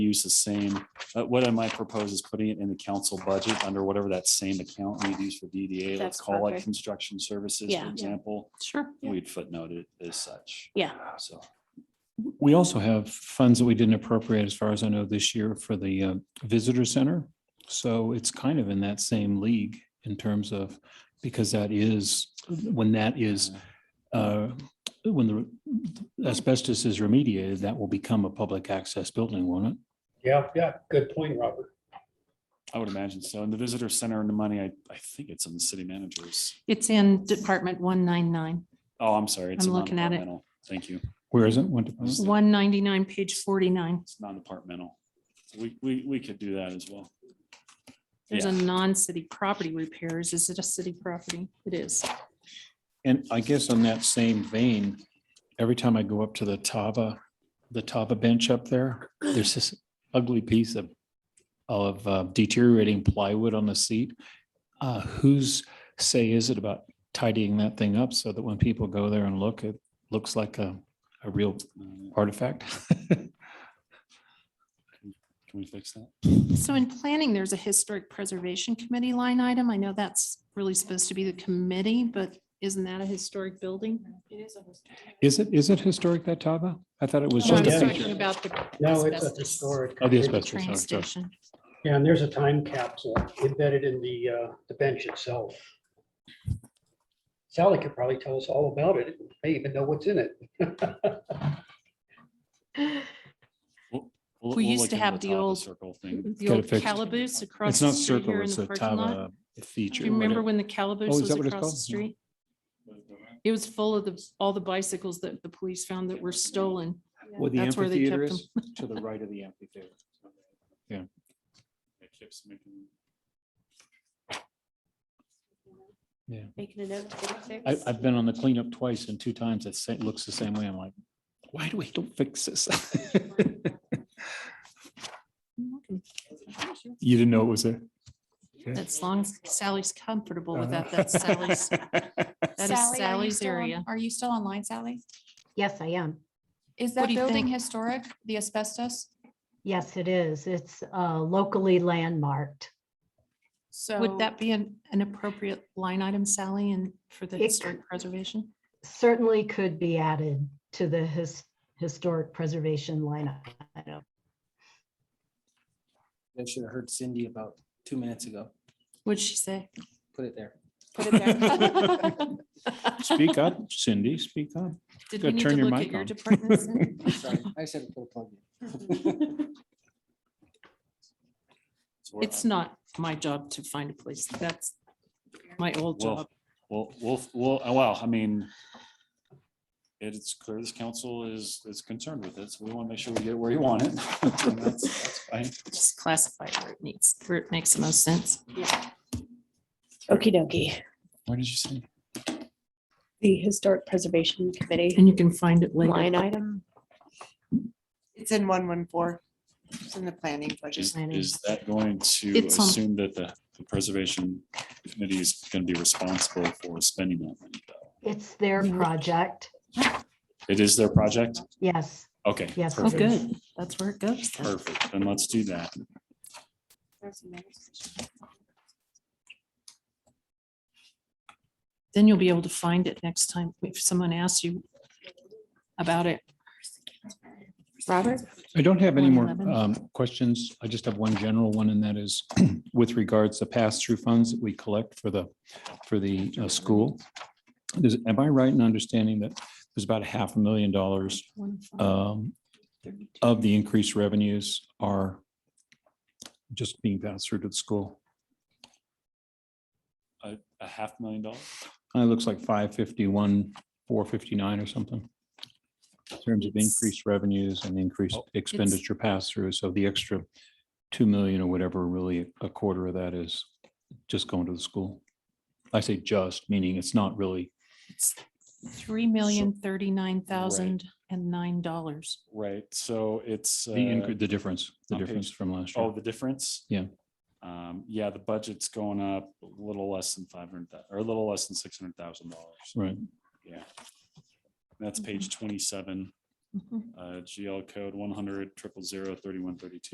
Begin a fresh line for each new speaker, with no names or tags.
use the same, uh, what I might propose is putting it in the council budget under whatever that same account we'd use for DDA, let's
That's
call it
perfect.
construction services,
Yeah.
for
Yeah.
example.
Sure.
We'd footnote it as such,
Yeah,
so.
We also have funds that we didn't appropriate, as far as I know, this year for the uh, visitor center. So it's kind of in that same league in terms of, because that is, when that is, uh, when the asbestos is remediated, that will become a public access building, won't it?
Yeah, yeah, good point, Robert.
I would imagine so. And the visitor center and the money, I, I think it's on the city managers.
It's in Department 199,
Oh, I'm sorry. it's
I'm
a
looking at it.
non-departmental. Thank you.
Where is it? What department?
199, page 49.
It's non-departmental. So We, we, we could do that as well.
There's a
Yeah.
non-city property repairs. Is it a city property? It is.
And I guess on that same vein, every time I go up to the Tava, the Tava bench up there, there's this ugly piece of of uh, deteriorating plywood on the seat. Uh, whose say is it about tidying that thing up so that when people go there and look, it looks like a a real
Uh,
artifact?
Can we fix that?
So in planning, there's a historic preservation committee line item. I know that's really supposed to be the committee, but isn't that a historic building? It is.
Is it, is it historic that Tava? I thought it was
I
just
was
a
talking
picture.
about the.
No, it's a
asbestos
historic.
Oh, the
at the
asbestos.
Train
sorry, sorry.
station.
Yeah, and there's a time capsule embedded in the, uh, the bench itself. Sally could probably tell us all about it, may even know what's in it.
We'll-
We
we'll
used
look
to
into
have the
Tava
old-
Circle thing.
The
Gotta
old
fix it.
calaboose across.
It's
the
not
street
circle,
here in
it's
the
a
parking lot.
Tava feature.
Do you remember
whatever.
when the calaboose
Oh, is
was
that what it's
across the
called?
street? It was full of the, all the bicycles that the police found that were stolen.
Where the
That's where they kept
amphitheater is, to the right of the amphitheater. Yeah.
It keeps making-
I, I've been on the cleanup twice and two times it sa- looks the same way. I'm like, why do we don't fix this? You didn't know it was there?
That's long, as Sally's comfortable with that.
Uh-huh.
That's Sally's, that
Sally, are
is
you
Sally's
still on-
area.
Are you still online, Sally?
Yes, I am.
Is that
do you
building
think?
historic, the asbestos?
Yes, it is. It's uh, locally landmarked.
So.
Would that be an, an appropriate line item, Sally, and for the
It-
historic preservation?
Certainly could be added to the his- historic preservation line item.
I should have heard Cindy about two minutes ago.
What'd she say?
Put it there.
Put it there.
Speak up, Cindy, speak up.
Did
Go
we need to
uh, turn your
look
mic
at your
on.
departments? then?
Sorry, I said put a plug
So we're-
It's not my job to find a place. That's my old
Well,
job.
Well, well, well, uh, well, I mean, it's clear this council is, is concerned with it, so we want to make sure we get where you want it. And that's- that's fine.
Just classify it where it needs, where it makes the most sense.
okie dokie.
Where did you say?
The Historic Preservation Committee
And you can find it later. Oh,
line item.
It's in one one four. It's in the planning budget.
Is, is that going to
It's on-
assume that the the preservation committee is going to be responsible for spending that money? though?
It's their project.
It is their project?
Yes,
Okay.
Yes.
Oh,
perfect,
good. That's where it goes. then.
Perfect, then let's do that.
Then you'll be able to find it next time if someone asks you about it.
Robert?
I don't have any more
111.
um, questions. I just have one general one, and that is with regards to pass-through funds that we collect for the, for the uh, school. Is- Am I right in understanding that there's about a half a million dollars um, of the increased revenues are just being passed through to the school?
A, a half million dollars?
Uh, It looks like five fifty-one, four fifty-nine or something. In terms of
It's-
increased revenues and increased expenditure pass-through, so the extra two million or whatever, really a quarter of that is just going to the school. I say just, meaning it's not really,
Three million thirty-nine thousand and nine dollars.
Right, so it's.
the,
uh,
incre- the difference, the
on page-
difference from last
Oh,
year.
the difference?
Yeah.
Um, yeah, the budget's going up a little less than five hundred, or a little less than six hundred thousand dollars.
Right.
Yeah. That's page twenty-seven, uh, GL code one hundred triple zero thirty-one thirty-two.